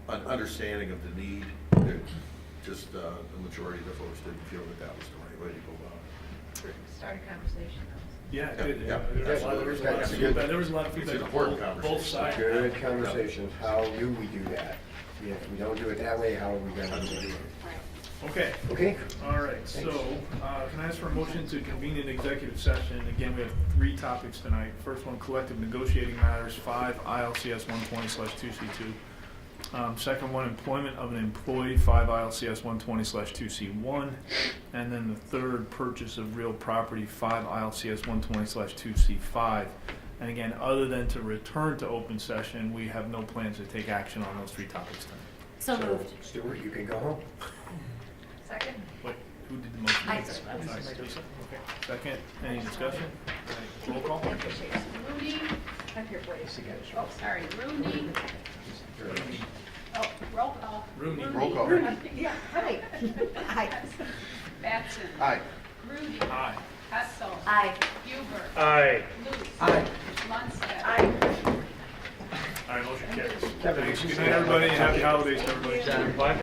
understanding of the need, that just uh, the majority of the folks didn't feel that that was the right way to go about it. Start a conversation. Yeah, it Yeah, yeah, did. There was a lot- there was a lot of absolutely. feedback, there was a lot of It's an feedback on important both- both conversation. sides. Good conversation, how do we do that? If we don't do it that way, how are we gonna do it? Okay, Okay? all right, so uh, can I ask for a motion to convene an executive session? Again, we have three topics tonight. First one, collective negotiating matters, five ILCS 120/2C2. Um, Second one, employment of an employee, five ILCS 120/2C1. And then the third, purchase of real property, five ILCS 120/2C5. And again, other than to return to open session, we have no plans to take action on those three topics tonight. So moved. Stuart, you can go home. Second? Wait, who did the motion? I did. I was Sorry, just- Lisa. Okay. Second, any discussion? Roll call? Rooney, up here, please. Oh, sorry, Rooney, oh, roll call. Rooney. Roll call. Yeah, hi. Aye. Batson. Aye. Rooney. Aye. Hessel. Aye. Huber. Aye. Luce. Aye. Munstead. All right, motion carries. Kevin, Thanks, you good say night, that. everybody, and happy holidays to everybody.